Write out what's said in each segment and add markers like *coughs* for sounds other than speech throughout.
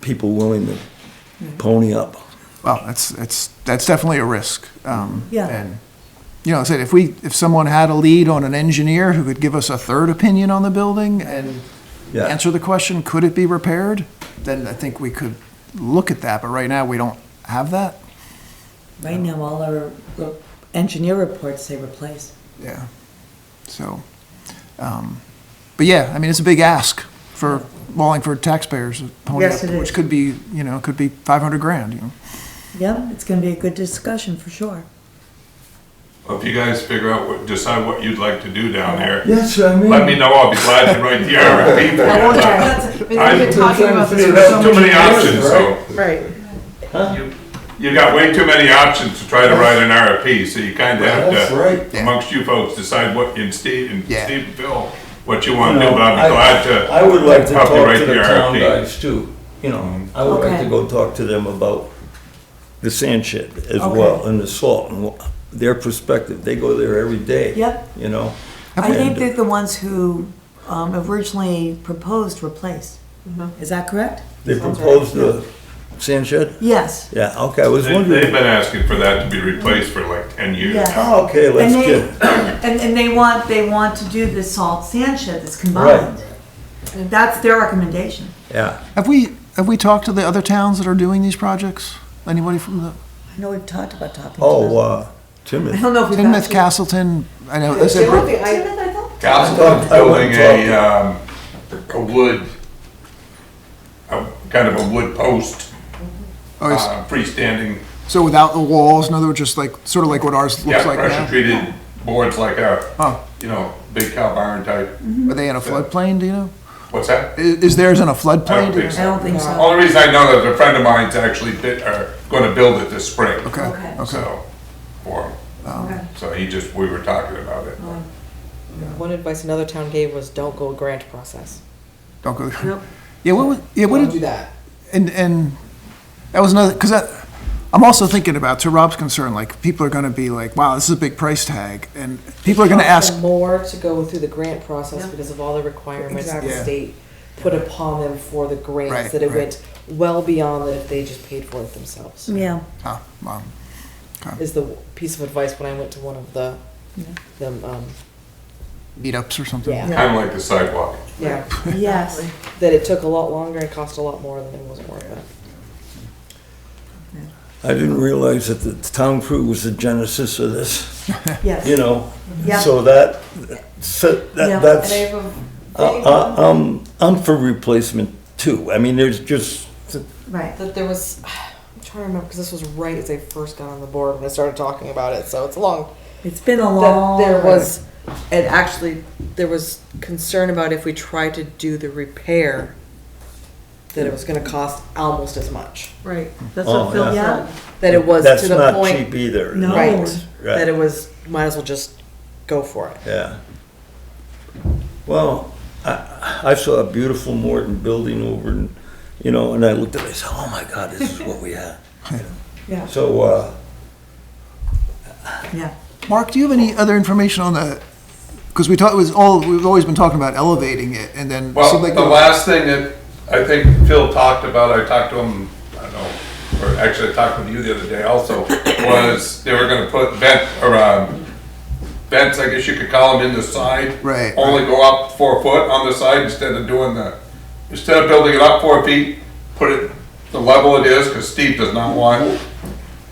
people willing to pony up. Well, that's, that's, that's definitely a risk. um, Yeah. And, you know, I said, if we, if someone had a lead on an engineer who could give us a third opinion on the building and Yeah. answer the question, could it be repaired? Then I think we could look at that, but right now, we don't have that. Right now, all our re- engineer reports say replace. Yeah. So, um, but yeah, I mean, it's a big ask for Wallingford taxpayers, to pony Yes, up, it is. which could be, you know, could be 500 grand, you know? Yeah, it's gonna be a good discussion for sure. Well, If you guys figure out, what decide what you'd like to do down there, That's what I mean. let me know, I'll be glad to write the *laughs* RFP for That's- We've I'm been talking about this you. for There's so Too many many years. options, so, Right, you got way too many options to try to write an RFP, so you kinda have That's right. to, amongst you folks, decide what, and Steve, and Yeah. Steve and Phil, what you wanna do, but I'll be glad to. I would like to help you talk write to the town RFP. guys too, you know, I would like Okay. to go talk to them about the sand shed as Okay. well, and the salt, and wha- their perspective, they go there every day. Yep. You know? I think And- they're the ones who um, originally proposed replace. Is that correct? They proposed the sand shed? Yes. Yeah, okay, I was They- They've wondering. been asking for that to be replaced for like ten years Yeah. now. Oh, okay, And let's they, get, *coughs* and, and they want, they want to do the salt sand shed that's combined. That's their recommendation. yeah, Have we, have we talked to the other towns that are doing these projects? Anybody from the, I know we've talked about talking to oh, them. uh, *laughs* I Timothy. don't know if we've. Timoth, actually- Castleton, I know, I The said, only thing I- Timoth, I thought? Castleton's building a, um, a wood, a, kind of a wood post, oh, it's- uh, freestanding so without the walls, in other words, just like, sort of like what ours looks Yeah, like pressure now? treated boards like Huh. a, you know, big cow barn type. Are they in a floodplain, do you know? What's that? I- Is theirs in a floodplain? I don't Do you think know? I don't think so. Only reason I know that a friend of mine's actually bit, are gonna build it this spring. Okay, okay. So, for him. Okay. So he just, we were talking about it. one advice another town gave was don't go grant process. Don't go. Nope. Yeah, what was, yeah, what Don't did, do that. And, and that was another, because that, I'm also thinking about, to Rob's concern, like, people are gonna be like, wow, this is a big price tag, and people are gonna Cost them ask, More to go through the grant process because of all the requirements the Yeah. state put upon them for the grants, Right, that it right. went well beyond that if they just paid for it themselves. Yeah, oh, mom, Is the piece of advice when I went to one of the, them, um, meetups or something. Yeah. Kinda like the sidewalk. yeah, yes. that it took a lot longer and cost a lot more than it was worth it. I didn't realize that the town crew was the genesis of this, Yes. you know? Yeah. So that, so Yeah. that, that's. have a Uh, uh, um, I'm for replacement too. I mean, there's just, Right. that there was *sighs* I'm trying to remember because this was right as I first got on the board when I started talking about it, so it's long. It's been a That long. there was, and actually there was concern about if we tried to do the repair, that it was going to cost almost as much. Right, that's Oh, what Phil yeah. said. That it was that's to the not point, cheap either. No. right, Right. That it was might as well just go for it. Yeah. Well, I, I saw a beautiful Morton building over and, you know, and I looked at it, I said, oh my God, this is what we *laughs* have. Yeah, So, uh, yeah. Mark, do you have any other information on the, because we talked, it was all, we've always been talking about elevating it, and then. it Well, seemed like the there- last thing that I think Phil talked about, I talked to him, I don't know, or actually I talked with you the other *coughs* day also, was they were gonna put vent, or, um, vents, I guess you could call them, in the side. Right, Only go up four foot on the side instead of doing the, instead of building it up four feet, put it the level it is, cause Steve does not want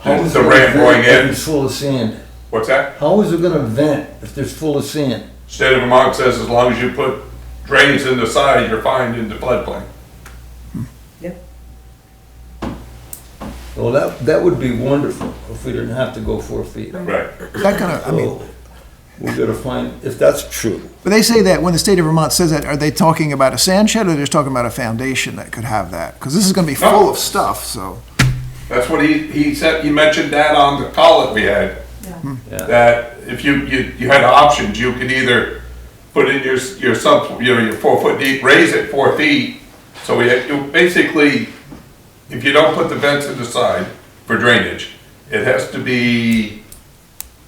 how is the it ramp gonna going vent if in. it's full of sand? What's that? How is it gonna vent if there's full of sand? State of Vermont says as long as you put drains in the side, you're fine in the floodplain. Well, that, that would be wonderful if we didn't have to go four feet. Right. Is that gonna, I mean, So, We're gonna find, if that's true, but they say that, when the state of Vermont says that, are they talking about a sand shed, or they're just talking about a foundation that could have that? Because this is gonna be full of stuff, so. That's what he, he said, he mentioned that on the call that we had, yeah. that if you, you, you had options, you could either put in your, s- your sub, you know, your four foot deep, raise it four feet. So we, had- you basically, if you don't put the vents in the side for drainage, it has to be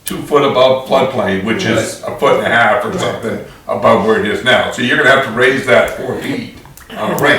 two foot above floodplain, which is a foot and a half or something above where it is now. So you're gonna have to raise that four feet on a ramp.